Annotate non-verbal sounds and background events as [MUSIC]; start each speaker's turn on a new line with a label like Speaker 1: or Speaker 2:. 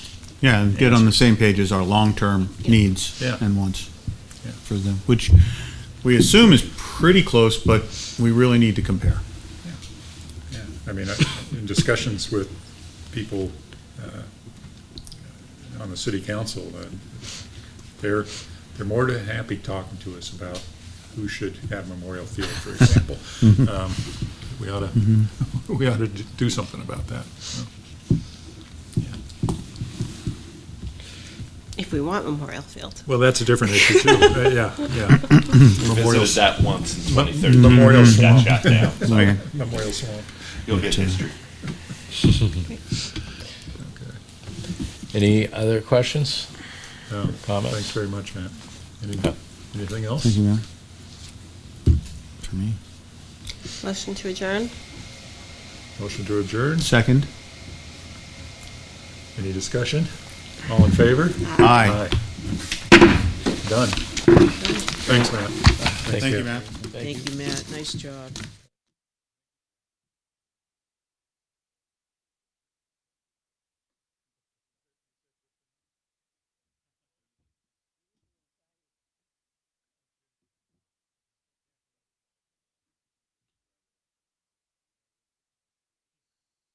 Speaker 1: Yeah, and get on the same page as our long-term needs
Speaker 2: Yeah.
Speaker 1: and wants
Speaker 2: Yeah.
Speaker 1: for them, which we assume is pretty close, but we really need to compare.
Speaker 2: Yeah, I mean, I- in discussions with people uh, on the city council, uh, they're, they're more than happy talking to us about who should have Memorial Field, for example. Um, We ought to, we ought to do something about that. so.
Speaker 3: If we want Memorial Field.
Speaker 2: Well, that's a different issue, too. [LAUGHS] Mm-hmm. Uh, Yeah, yeah.
Speaker 4: Visited that once in 2013.
Speaker 2: Memorial
Speaker 4: Got
Speaker 2: Swamp.
Speaker 4: shot down.
Speaker 1: Okay.
Speaker 2: Memorial Swamp.
Speaker 4: You'll get history.
Speaker 2: Okay.
Speaker 5: Any other questions?
Speaker 2: No,
Speaker 5: Comments?
Speaker 2: Oh, Thanks very much, Matt. Any-
Speaker 5: Yeah.
Speaker 2: Anything else?
Speaker 1: Thank you, Mayor. For me.
Speaker 3: Motion to adjourn?
Speaker 2: Motion to adjourn?
Speaker 1: Second?
Speaker 2: Any discussion? All in favor?
Speaker 1: Aye.
Speaker 2: Done. Thanks, Matt. Thank
Speaker 1: Matt.
Speaker 3: Thank you, Matt. Nice job.